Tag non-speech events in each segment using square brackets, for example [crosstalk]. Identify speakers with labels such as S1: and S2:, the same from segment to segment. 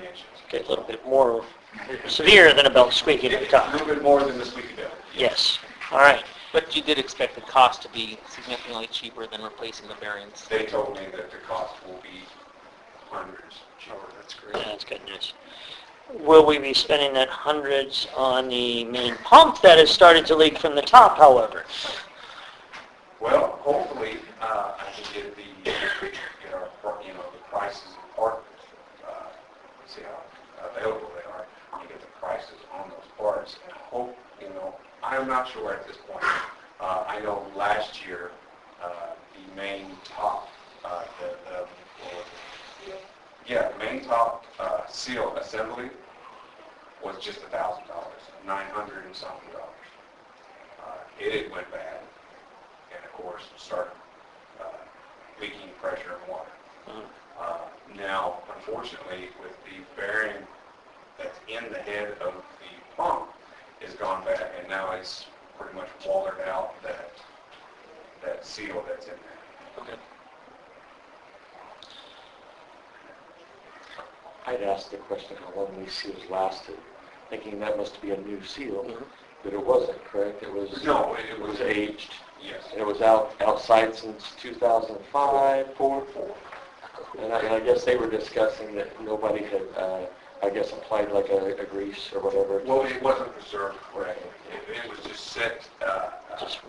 S1: inches. Okay, a little bit more severe than a belt squeaking at the
S2: A
S1: top.
S2: little bit more than the squeaky belt.
S1: Yes, all right.
S3: But you did expect the cost to be significantly cheaper than replacing the bearings.
S2: They told me that the cost will be hundreds. Oh, that's
S1: Yeah, That's good news. Will we be spending that hundreds on the main pump that has started to leak from the top, however?
S2: Well, hopefully, uh, I can get the, get our, pr- you know, the prices of part, uh, see how available they are, and get the prices on those parts, and hope, you know, I'm not sure at this point. Uh, I know last year, uh, the main top, uh, the, the, what was it? Yeah, the main top, uh, seal assembly was just a thousand dollars, nine hundred and something dollars. Uh, It went bad and of course start uh, leaking pressure and water.
S1: Mm-hmm.
S2: Uh, Now, unfortunately, with the bearing that's in the head of the pump is gone back and now it's pretty much watered out that, that seal that's in there.
S4: I'd asked the question how long these seals lasted, thinking that must be a new seal,
S1: Mhm.
S4: but it wasn't, correct? It was,
S2: No, it it
S4: Mm-hmm. it
S2: was
S4: was
S2: a,
S4: aged,
S2: yes,
S4: and it was out, outside since 2005, four? And I, and I guess they were discussing that nobody had, uh, I guess applied like a, a grease or whatever.
S2: well, it wasn't preserved correctly. It it was just set, uh, uh,
S1: Just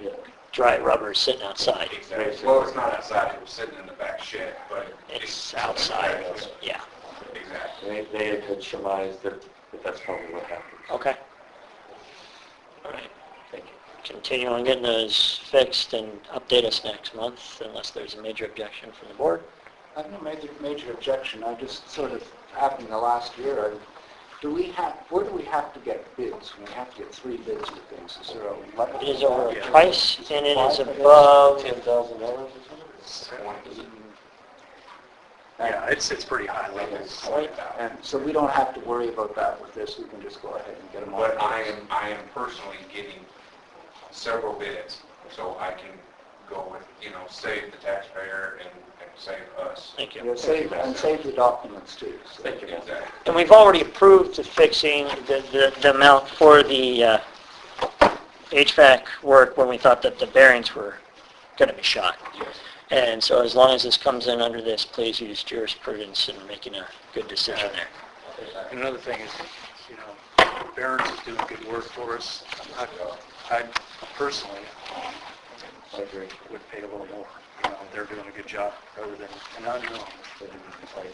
S4: Yeah,
S1: dry rubber sitting outside.
S2: exactly, well, it's not outside, it was sitting in the back shed, but
S1: It's outside, yeah.
S2: Exactly.
S4: And they, they had surmised that, that that's probably what happened.
S1: Okay. All right.
S4: Thank you.
S1: Continue on getting those fixed and update us next month unless there's a major objection from the board.
S5: I have no major, major objection, I just sort of, happened the last year, I, do we have, where do we have to get bids? We have to get three bids for things, is there a level?
S1: It is over a price and it is above,
S4: Ten thousand dollars or something?
S5: Yeah,
S2: it's, it's pretty high
S5: levels. And so we don't have to worry about that with this, we can just go ahead and get them all.
S2: But I am, I am personally getting several bids, so I can go with, you know, save the taxpayer and, and save us.
S1: thank you.
S5: Yeah, save- And save the documents too. so-
S2: Exactly.
S1: And we've already approved the fixing, the, the, the amount for the uh, HVAC work when we thought that the bearings were going to be shot.
S2: Yes.
S1: And so as long as this comes in under this, please use jurisprudence in making a good decision there.
S6: And another thing is, you know, Barron's is doing good work for us. I I personally um,
S4: I agree.
S6: would pay a little more. You know, they're doing a good job rather than, and I know,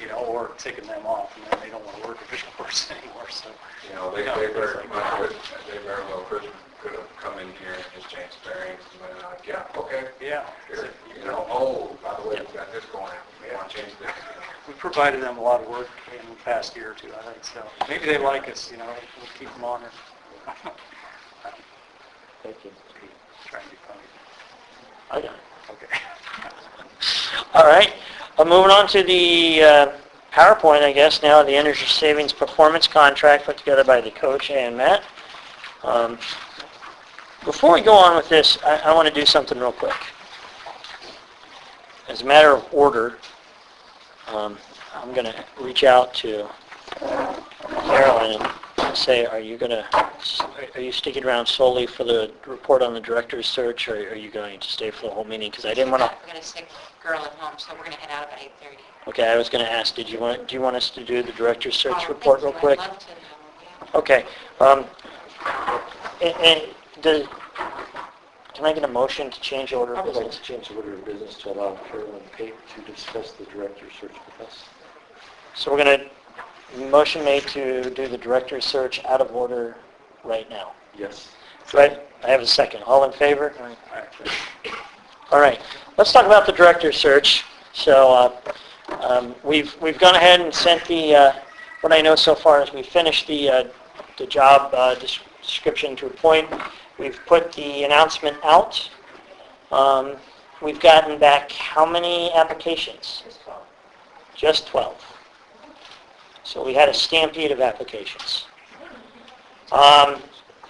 S6: you know, or taking them off and then they don't want to work at Vision Force [laughs] anymore, so.
S2: You know, they, they very, much could- they very well could, could have come in here and just changed bearings and been like, yeah, okay.
S6: Yeah.
S2: Here, You know, oh, by the way, we got this going out, we want to change this.
S6: We provided them a lot of work in the past year or two, I think, so maybe they like us, you know, we'll keep them on and [laughs]
S4: Thank you.
S6: try and be funny.
S1: I got it.
S6: Okay. [laughs]
S1: All right, Uh, moving on to the uh, PowerPoint, I guess, now, the energy savings performance contract put together by the coach and Matt. Um, Before we go on with this, I want to do something real quick. As a matter of order, um, I'm going to reach out to Carolyn and say, are you going to, are you sticking around solely for the report on the director's search, or are you going to stay for the whole meeting? Because I didn't want to
S7: We're going to stick girl at home, so we're going to head out about 8:30.
S1: Okay, I was going to ask, did you want, do you want us to do the director's
S7: Oh,
S1: search
S7: thank
S1: report
S7: you.
S1: real quick?
S7: I'd love to know, yeah.
S1: Okay, um, and, and the, can I get a motion to change order
S4: I
S1: of
S4: would like to
S1: business?
S4: change the order of business to allow Carolyn Pate to discuss the director's search with us.
S1: So we're going to, motion made to do the director's search out of order right now.
S4: Yes.
S1: Right, I have a second. All in favor? All right, let's talk about the director's search. So uh, um, we've we've gone ahead and sent the, uh, what I know so far is we finished the uh, the job uh, des- description to a point. We've put the announcement out. Um, We've gotten back how many applications? Just 12. So we had a stampede of applications. Um,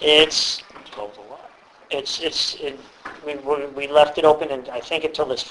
S1: It's
S6: Twelve's a lot.
S1: it's, it's, it- we, we we left it open and I think until this